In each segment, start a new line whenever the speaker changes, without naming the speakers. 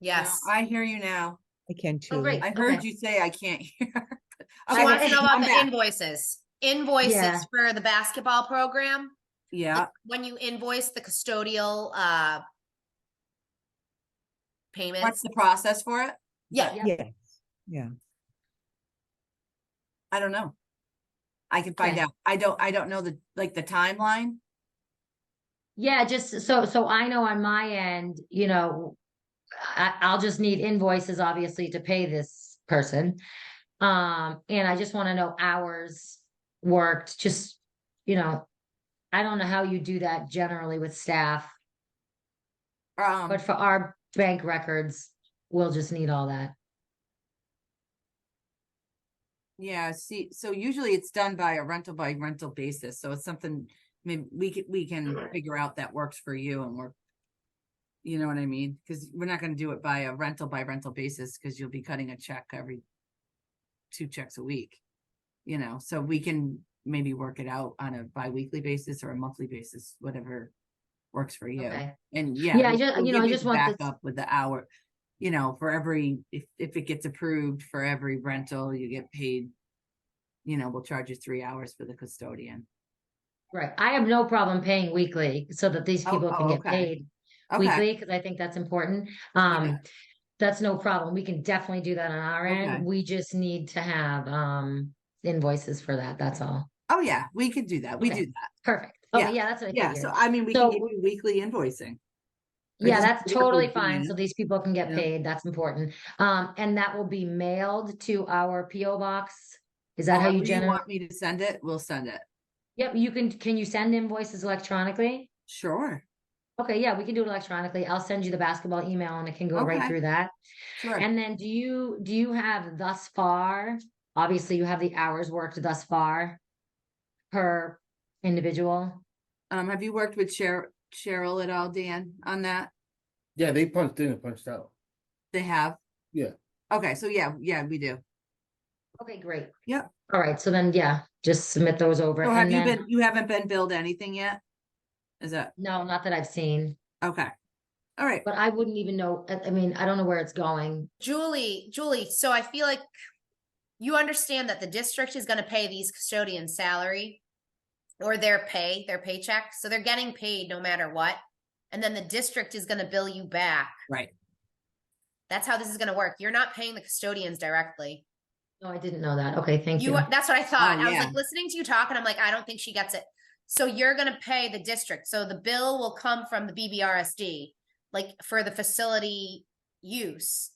Yeah,
Yes.
I hear you now.
I can too.
great.
I
Okay.
heard you say I can't hear.
She wants to
Okay,
know about
I'm
the
back.
invoices. Invoices
Yeah.
for the basketball program.
Yeah,
When you invoice the custodial, uh,
what's
payments.
the process for it?
Yeah,
Yeah, yeah.
I don't know. I can find
Okay.
out. I don't, I don't know the, like, the timeline.
Yeah, just so, so I know on my end, you know, I, I'll just need invoices obviously to pay this person. Um, and I just want to know hours worked, just, you know, I don't know how you do that generally with staff,
Um,
but for our bank records, we'll just need all that.
yeah, see, so usually it's done by a rental by rental basis, so it's something, maybe we can, we can figure out that works for you and work. You know what I mean? Cause we're not gonna do it by a rental by rental basis, cause you'll be cutting a check every two checks a week. You know, so we can maybe work it out on a bi-weekly basis or a monthly basis, whatever works for you.
Okay.
And yeah.
Yeah, I
we-
ju-
we'll
you know,
give
I just
the
want this-
Backup with the hour, you know, for every, if, if it gets approved for every rental, you get paid. You know, we'll charge you three hours for the custodian.
Right. I have no problem paying weekly so that these
Oh,
people
oh,
can get
okay.
paid
Okay,
weekly because I think that's important. Um, that's no problem. We can definitely do that on our
Okay.
end. We just need to have, um, invoices for that. That's all.
oh yeah, we could do that. We
Okay.
do that.
Perfect.
Yeah.
Okay, yeah, that's what I
Yeah, so
figured.
I mean, we can
So-
give you weekly invoicing. I
Yeah,
just
that's
figured it
totally
would be
fine.
in.
So these people can get
Yeah.
paid. That's important. Um, and that will be mailed to our PO box. Is that how
However
you generate?
Want me to send it? We'll send it.
Yep, you can, can you send invoices electronically?
Sure,
Okay, yeah, we can do it electronically. I'll send you the basketball email and it can go right
Okay.
through that.
sure.
And then do you, do you have thus far, obviously you have the hours worked thus far per individual?
Um, have you worked with Cheryl, Cheryl at all, Dan, on that?
Yeah, they punched in and punched out.
They have?
Yeah.
Okay, so yeah, yeah, we do.
Okay, great.
Yep.
All right, so then, yeah, just submit those over.
So have
and
you
then-
been, you haven't been billed anything yet? Is that,
No, not that I've seen,
okay. All right,
but I wouldn't even know, I, I mean, I don't know where it's going.
Julie, Julie, so I feel like you understand that the district is gonna pay these custodians salary or their pay, their paycheck, so they're getting paid no matter what. And then the district is gonna bill you back.
right.
That's how this is gonna work. You're not paying the custodians directly.
No, I didn't know that. Okay, thank
You,
you.
are- that's what I thought.
Oh,
I was
yeah.
like listening to you talk and I'm like, I don't think she gets it. So you're gonna pay the district. So the bill will come from the BBRSD, like for the facility use.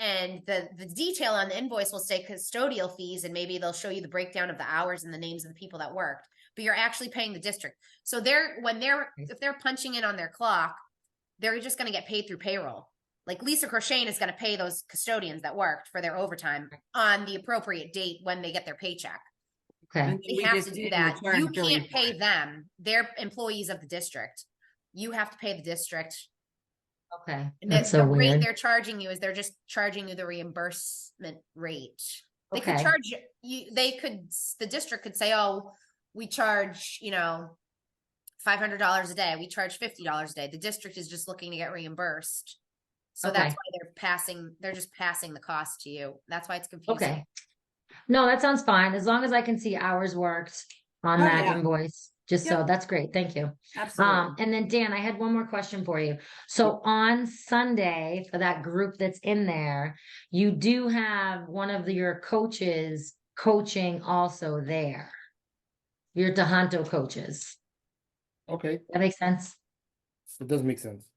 And the, the detail on the invoice will say custodial fees and maybe they'll show you the breakdown of the hours and the names of the people that worked. But you're actually paying the district. So they're, when they're, if they're punching in on their clock, they're just gonna get paid through payroll. Like Lisa Crochane is gonna pay those custodians that worked for their overtime on the appropriate date when they get their paycheck.
Okay,
And
They
we
have
just
to do
didn't
that.
return
You
billing
can't
for
pay
it.
them. They're employees of the district. You have to pay the district.
okay.
And the-
That's so
the rate
weird.
They're charging you is they're just charging you the reimbursement rate. They could
Okay.
charge you- you, they could, s- the district could say, oh, we charge, you know, five hundred dollars a day, we charge fifty dollars a day. The district is just looking to get reimbursed. So that's
Okay.
why they're passing, they're just passing the cost to you. That's why it's confusing.
Okay. No, that sounds fine. As long as I can see hours worked on
Oh,
that
yeah.
invoice, just so, that's great. Thank you. Um,
Absolutely.
and then Dan, I had one more question for you. So on Sunday, for that group that's in there, you do have one of your coaches coaching also there. Your Tohoto coaches.
Okay,
That makes sense?
it does make sense.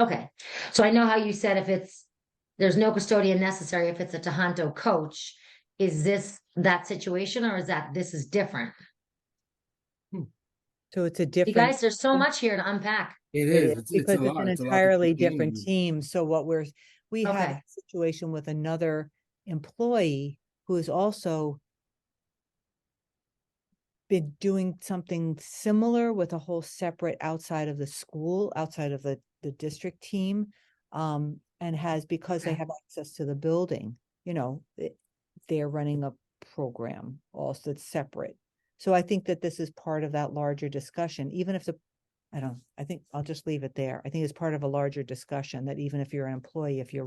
Okay. So I know how you said if it's, there's no custodian necessary if it's a Tohoto coach. Is this that situation or is that this is different?
So it's a
You
different.
guys, there's so much here to unpack.
It
It is.
is,
It's, it's
Because
a
it's
lot.
an
it's a lot to
entirely
keep in
different
and-
team, so what we're, we had
Okay.
a situation with another employee who is also been doing something similar with a whole separate outside of the school, outside of the, the district team. Um, and has, because they
Okay.
have access to the building, you know, it- they're running a program also that's separate. So I think that this is part of that larger discussion, even if the I don't, I think I'll just leave it there. I think it's part of a larger discussion that even if you're an employee, if you're